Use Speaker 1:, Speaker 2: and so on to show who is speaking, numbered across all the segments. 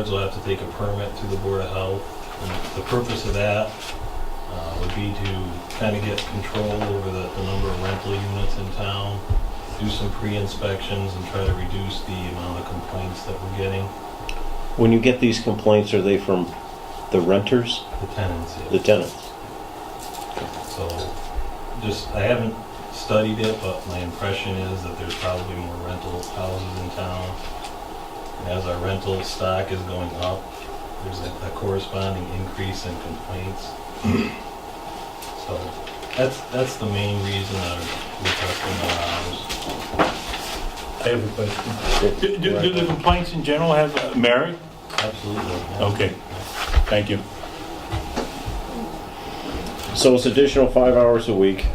Speaker 1: Boards will have to take a permit through the Board of Health, and the purpose of that uh, would be to kind of get control over the, the number of rental units in town, do some pre-inspections and try to reduce the amount of complaints that we're getting,
Speaker 2: When you get these complaints, are they from the renters,
Speaker 1: the tenants. yeah.
Speaker 2: the tenants?
Speaker 1: So, just, I haven't studied it, but my impression is that there's probably more rental houses in town. And as our rental stock is going up, there's a a corresponding increase in complaints. So, that's, that's the main reason I'm requesting the hours.
Speaker 3: I have a question. Do, do do the complaints in general have uh, merit?
Speaker 1: Absolutely. yeah.
Speaker 3: Okay, thank you.
Speaker 2: So it's additional five hours a week.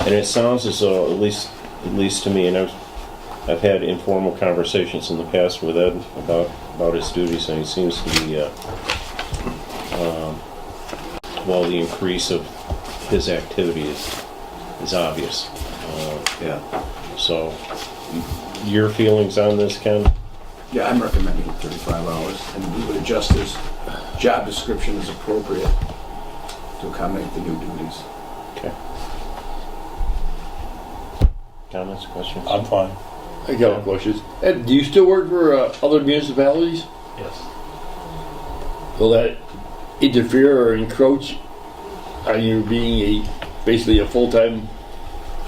Speaker 2: And it sounds as though, at least, at least to me, and I've, I've had informal conversations in the past with Ed about, about his duties, and he seems to be, uh, um, well, the increase of his activity is, is obvious. Uh,
Speaker 4: Yeah,
Speaker 2: So, your feelings on this, Ken?
Speaker 4: yeah, I'm recommending 35 hours, and we would adjust this job description as appropriate to accommodate the new duties.
Speaker 2: Comments, questions?
Speaker 3: I'm fine.
Speaker 5: I got no questions. Ed, do you still work for uh, other municipalities?
Speaker 1: Yes.
Speaker 5: Will that interfere or encroach on you being a basically a full time,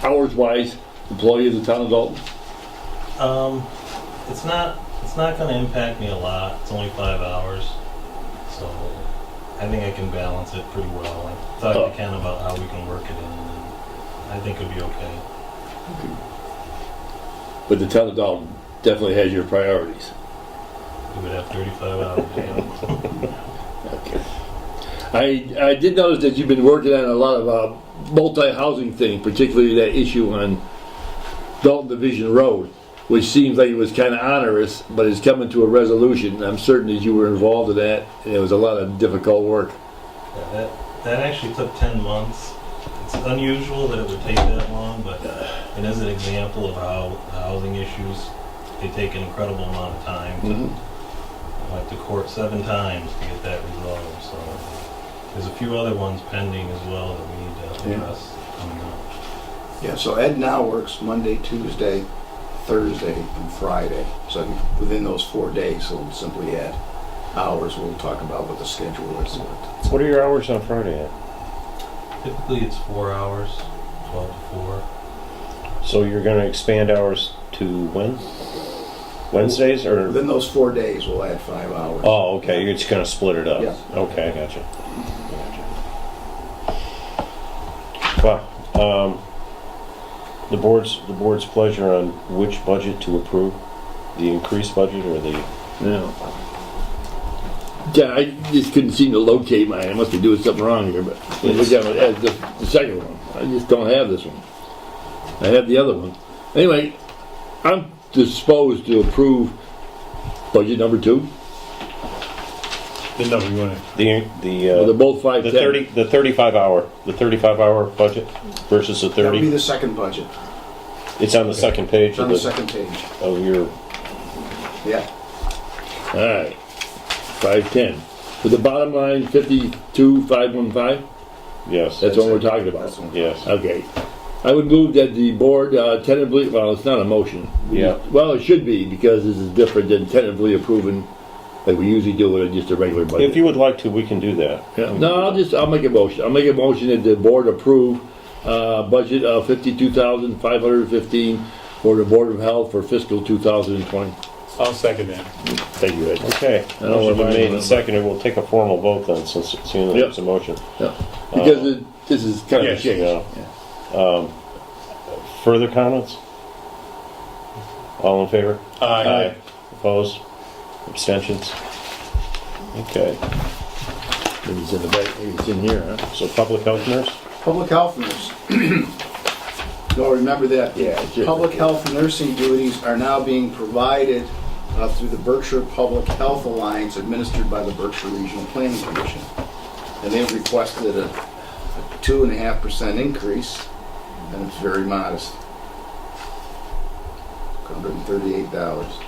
Speaker 5: hours wise employee of the town of Dalton?
Speaker 1: Um, it's not it's not going to impact me a lot. It's only five hours, so I think I can balance it pretty well. I talked
Speaker 5: Oh.
Speaker 1: to Ken about how we can work it in, and I think it'll be okay.
Speaker 5: But the town of Dalton definitely has your priorities.
Speaker 1: We would have 35 hours. yeah.
Speaker 5: I, I did notice that you've been working on a lot of uh, multi-housing thing, particularly that issue on Dalton Division Road, which seems like it was kind of onerous, but it's coming to a resolution. I'm certain that you were involved in that, and it was a lot of difficult work.
Speaker 1: Yeah, that that actually took 10 months. It's unusual that it would take that long, but it is an example of how housing issues they take an incredible amount of time to went to court seven times to get that resolved, so there's a few other ones pending as well that we need to
Speaker 4: Yeah.
Speaker 1: address coming up.
Speaker 4: Yeah, so Ed now works Monday, Tuesday, Thursday, and Friday, so within those four days, he'll simply add hours. We'll talk about what the schedule is.
Speaker 2: What are your hours on Friday at?
Speaker 1: Typically, it's four hours, twelve to four.
Speaker 2: So you're gonna expand hours to when? Wednesdays or?
Speaker 4: Within those four days, we'll add five hours.
Speaker 2: Oh, okay, you're just gonna split it up?
Speaker 4: Yeah.
Speaker 2: Okay, I gotcha. Gotcha. Well, um, the board's, the board's pleasure on which budget to approve? The increased budget or the,
Speaker 5: Yeah. Yeah, I just couldn't seem to locate mine. I must be doing something wrong here, but it was down at the, the second one. I just don't have this one. I have the other one. Anyway, I'm disposed to approve budget number two.
Speaker 3: The number you want to,
Speaker 2: the, the,
Speaker 5: Well, they're
Speaker 2: uh,
Speaker 5: both five
Speaker 2: the
Speaker 5: ten.
Speaker 2: thirty, the thirty-five hour, the thirty-five hour budget versus the
Speaker 4: That'll be
Speaker 2: thirty?
Speaker 4: the second budget,
Speaker 2: It's on the second page
Speaker 4: It's
Speaker 2: of
Speaker 4: on the
Speaker 2: the,
Speaker 4: second page.
Speaker 2: of your,
Speaker 4: Yeah,
Speaker 5: All right, five ten. With the bottom line, fifty-two five one five.
Speaker 2: yes,
Speaker 5: That's what we're
Speaker 4: That's it.
Speaker 5: talking
Speaker 4: that's
Speaker 5: about.
Speaker 4: one.
Speaker 2: yes.
Speaker 5: Okay. I would move that the board uh, tentatively. Well, it's not a motion.
Speaker 2: Yeah.
Speaker 5: Well, it should be because this is different than tentatively approving, like we usually do with just a regular budget.
Speaker 2: If you would like to, we can do that.
Speaker 5: Yeah. No, I'll just I'll make a motion. I'll make a motion that the board approve uh, budget of fifty-two thousand five hundred fifteen for the Board of Health for fiscal two thousand and twenty.
Speaker 3: I'll second that.
Speaker 5: Thank you, Ed.
Speaker 2: Okay,
Speaker 5: I don't
Speaker 2: motion been
Speaker 5: mind
Speaker 2: made and
Speaker 5: that.
Speaker 2: seconded, we'll take a formal vote then, since it's
Speaker 5: Yep.
Speaker 2: unanimous motion.
Speaker 5: Yeah. Because it, this is kind of
Speaker 3: Yes.
Speaker 5: a change.
Speaker 2: Yeah. Um, Further comments? All in favor?
Speaker 3: Aye.
Speaker 2: Opposed? Abstentions? Okay,
Speaker 5: Maybe it's in the back. Maybe it's in here. Huh?
Speaker 2: so public health nurse?
Speaker 4: Public health nurse. Y'all remember that?
Speaker 5: Yeah, it's just-
Speaker 4: Public health nursing duties are now being provided uh, through the Berkshire Public Health Alliance administered by the Berkshire Regional Planning Commission. And they've requested a a two and a half percent increase, and it's very modest. Okay. hundred and thirty-eight dollars.